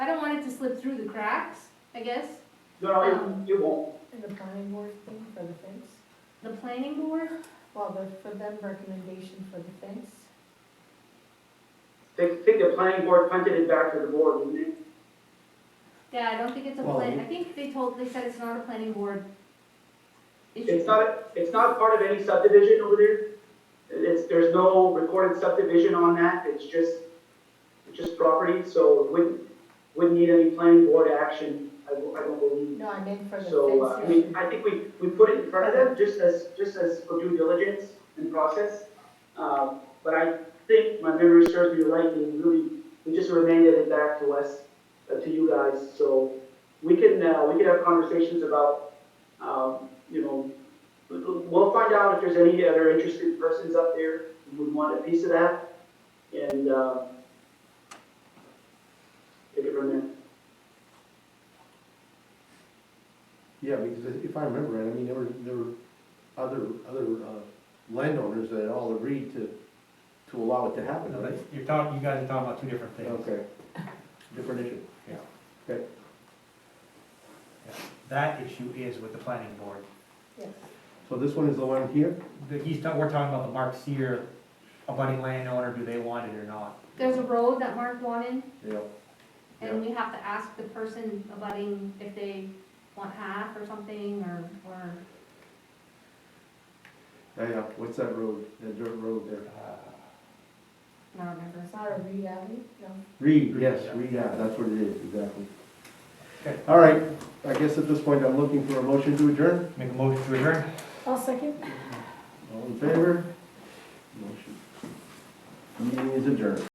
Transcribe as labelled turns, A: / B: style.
A: it to slip through the cracks, I guess.
B: No,
A: Um,
B: it, it won't.
C: And the planning board thing for the fence,
A: The planning board,
C: well, the, for them recommendation for the fence,
B: They think the planning board punted it back to the board, didn't it?
A: yeah, I don't think it's a
D: Well,
A: plan,
D: it-
A: I think they told, they said it's not a planning board.
B: It's
A: issue.
B: not, it's not part of any subdivision over there. It's, there's no recorded subdivision on that, it's just, it's just property, so it wouldn't, wouldn't need any planning board action, I, don't- I don't believe.
C: no, I meant for the fence.
B: So, uh,
C: issue.
B: we, I think we, we put it in front of them, just as, just as for due diligence and process. Uh, but I think my memory serves me right, and really, we just remanded it back to us, uh, to you guys, so we can, uh, we can have conversations about, um, you know, we- we'll find out if there's any other interested persons up there who would want a piece of that, and, uh, take it from there.
D: Yeah, because if- if I remember right, I mean, there were, there were other, other, uh, landowners that all agreed to, to allow it to happen,
E: No,
D: right?
E: that's- You're talking, you guys are talking about two different things.
D: Okay. Different issue.
E: That issue is with the planning board.
C: Yes,
D: So this one is the one here?
E: The, he's, ta- we're talking about the Mark Seer, abutting landowner, do they want it or not?
A: There's a road that Mark wanted,
D: Yeah. Yeah.
A: and we have to ask the person abutting if they want half or something, or, or,
D: Yeah, yeah, what's that road, that dirt road there?
E: Uh,
A: I don't remember.
C: it's not a read alley, no.
D: Reed,
E: Reed,
D: yes,
E: yeah.
D: Reed, yeah, that's what it is, exactly.
E: Okay.
D: All right, I guess at this point, I'm looking for a motion to adjourn.
E: Make a motion to adjourn?
C: I'll second.
D: All in favor? Motion. Meeting is adjourned.